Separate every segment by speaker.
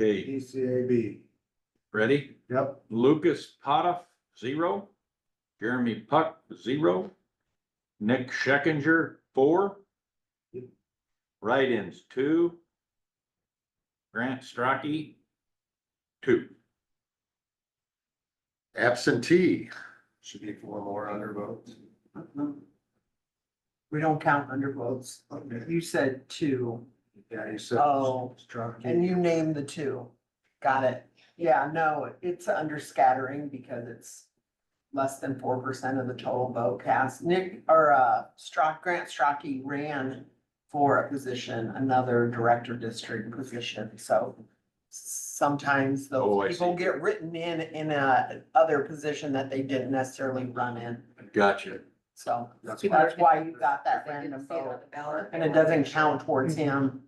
Speaker 1: Okay,
Speaker 2: DCAB,
Speaker 1: ready?
Speaker 2: yep,
Speaker 1: Lucas Potoff, zero. Jeremy Puck, zero. Nick Scheckinger, four. Write-ins, two. Grant Strachey, two.
Speaker 3: Absentee,
Speaker 2: should be four more undervotes.
Speaker 4: We don't count undervotes.
Speaker 2: Okay.
Speaker 4: You said two
Speaker 2: Yeah, you said.
Speaker 4: Oh,
Speaker 2: Strachey.
Speaker 4: and you named the two. Got it. Yeah, no, it's under scattering because it's less than four percent of the total vote cast. Nick or uh Strock, Grant Strachey ran for a position, another director district position, so sometimes
Speaker 1: Oh, I
Speaker 4: those people
Speaker 1: see.
Speaker 4: get written in in a other position that they didn't necessarily run in,
Speaker 1: Gotcha.
Speaker 4: so
Speaker 2: That's why,
Speaker 4: that's why you got that
Speaker 5: They didn't
Speaker 4: random
Speaker 5: see it
Speaker 4: vote.
Speaker 5: on the ballot.
Speaker 4: And it doesn't count towards him.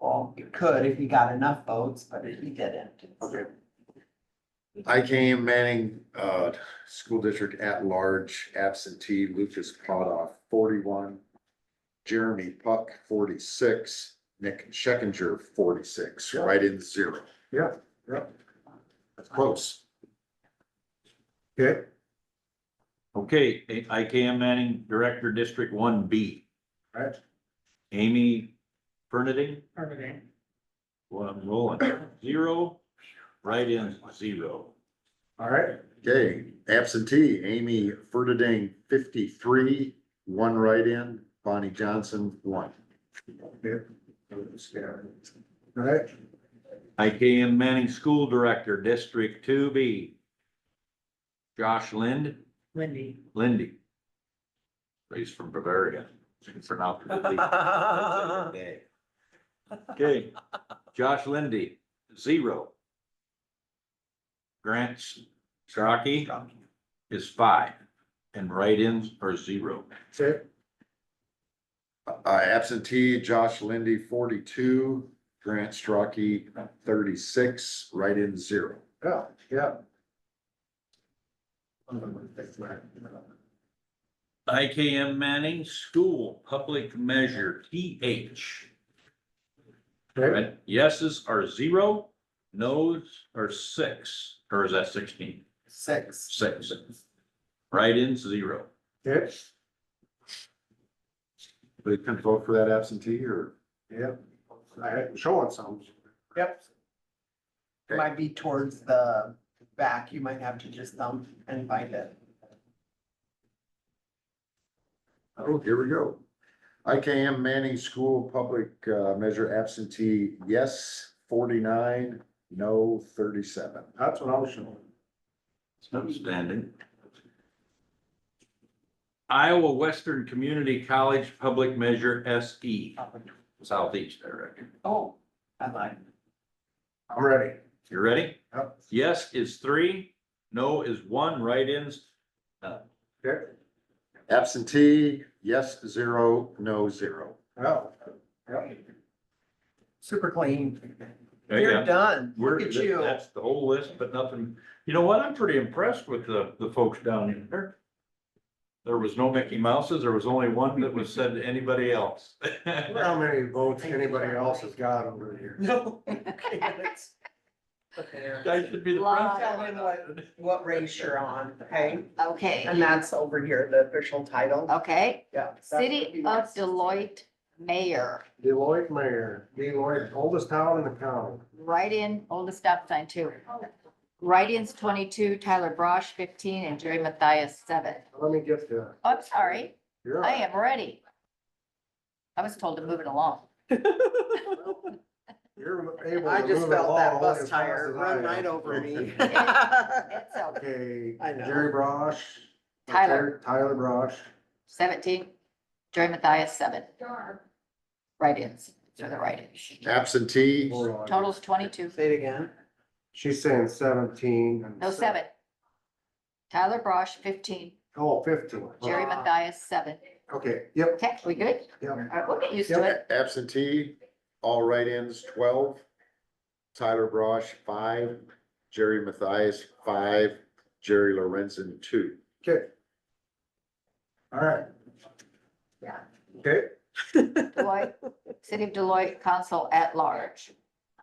Speaker 4: Well, it could if he got enough votes, but he didn't.
Speaker 2: okay,
Speaker 3: I came Manning, uh, school district at large absentee Lucas Potoff, forty-one. Jeremy Puck, forty-six, Nick Scheckinger, forty-six,
Speaker 2: Yeah.
Speaker 3: right in zero.
Speaker 2: Yeah, yeah.
Speaker 3: That's close.
Speaker 2: okay,
Speaker 1: Okay, IKM Manning, Director, District One B.
Speaker 2: Right.
Speaker 1: Amy Fernending. One rolling, zero, write-ins, zero.
Speaker 2: all right,
Speaker 3: Okay, absentee Amy Ferdeding, fifty-three, one write-in, Bonnie Johnson, one.
Speaker 2: okay. All right,
Speaker 1: IKM Manning School Director, District Two B. Josh Lind,
Speaker 5: Wendy.
Speaker 1: Lindy. He's from Bavaria. For now. Okay, Uh-huh. Josh Lindy, zero. Grant Strachey is five, and write-ins are zero.
Speaker 2: okay,
Speaker 3: Uh, absentee Josh Lindy, forty-two, Grant Strachey, thirty-six, write-in, zero.
Speaker 2: yeah, yeah.
Speaker 1: IKM Manning School Public Measure, TH.
Speaker 2: Okay,
Speaker 1: Right, yeses are zero, nos are six, or is that sixteen?
Speaker 4: Six.
Speaker 1: Six. Write-ins, zero.
Speaker 2: okay,
Speaker 3: They can vote for that absentee or?
Speaker 2: yep, I had showing some.
Speaker 4: Yep. It Might be towards the back. You might have to just thumb and find it.
Speaker 3: Oh, here we go. IKM Manning School Public uh, Measure absentee, yes, forty-nine, no, thirty-seven.
Speaker 2: That's what I was showing.
Speaker 1: It's outstanding. Iowa Western Community College Public Measure SE, Southeast, I reckon.
Speaker 4: Oh, I lied.
Speaker 2: I'm ready.
Speaker 1: You ready?
Speaker 2: Yep.
Speaker 1: Yes is three, no is one, write-ins,
Speaker 2: Okay,
Speaker 3: Absentee, yes, zero, no, zero.
Speaker 2: yeah, yeah,
Speaker 4: Super clean.
Speaker 2: Uh,
Speaker 1: Yeah,
Speaker 4: You're
Speaker 1: yeah.
Speaker 4: done.
Speaker 1: We're,
Speaker 4: Look at you.
Speaker 1: that's the whole list, but nothing, you know what, I'm pretty impressed with the, the folks down there. There was no Mickey Mouses, there was only one that was said to anybody else.
Speaker 2: I wonder how many votes anybody else has got over here.
Speaker 4: No.
Speaker 1: I should be the
Speaker 4: Tell him what,
Speaker 1: president.
Speaker 4: what race you're on, okay? And
Speaker 5: Okay,
Speaker 4: that's over here, the official
Speaker 2: Oh.
Speaker 4: title.
Speaker 5: okay.
Speaker 4: Yeah.
Speaker 5: City of Deloitte Mayor,
Speaker 2: Deloitte mayor, Deloitte, oldest town in the county.
Speaker 5: right in, oldest stop sign too. Write-ins twenty-two, Tyler Brosh fifteen, and Jerry Matthias seven.
Speaker 2: Let me get the.
Speaker 5: Oh, I'm sorry,
Speaker 2: You're
Speaker 5: I
Speaker 2: right.
Speaker 5: am ready. I was told to move it along.
Speaker 2: You're able to.
Speaker 4: I just
Speaker 2: move it
Speaker 4: felt that
Speaker 2: along
Speaker 4: bus
Speaker 2: as fast
Speaker 4: tire
Speaker 2: as I
Speaker 4: run
Speaker 2: am.
Speaker 4: right over me.
Speaker 5: It's a
Speaker 2: Okay,
Speaker 4: I know.
Speaker 2: Jerry Brosh.
Speaker 5: Tyler.
Speaker 2: Tyler Brosh,
Speaker 5: seventeen, Jerry Matthias seven. Write-ins, so the write-ins.
Speaker 3: Absentee,
Speaker 2: hold on.
Speaker 5: Total's twenty-two,
Speaker 4: Say it again.
Speaker 2: She's saying seventeen. and
Speaker 5: no, seven. Tyler Brosh fifteen,
Speaker 2: Oh, fifteen.
Speaker 5: Jerry
Speaker 4: Ah.
Speaker 5: Matthias seven.
Speaker 2: Okay, yep,
Speaker 5: Okay, we good?
Speaker 2: yep.
Speaker 5: All right, we'll get used to it.
Speaker 3: absentee, all write-ins, twelve. Tyler Brosh, five, Jerry Matthias, five, Jerry Lorenzen, two.
Speaker 2: Okay. All right.
Speaker 5: Yeah.
Speaker 2: Okay,
Speaker 5: Deloitte, City of Deloitte Council at Large.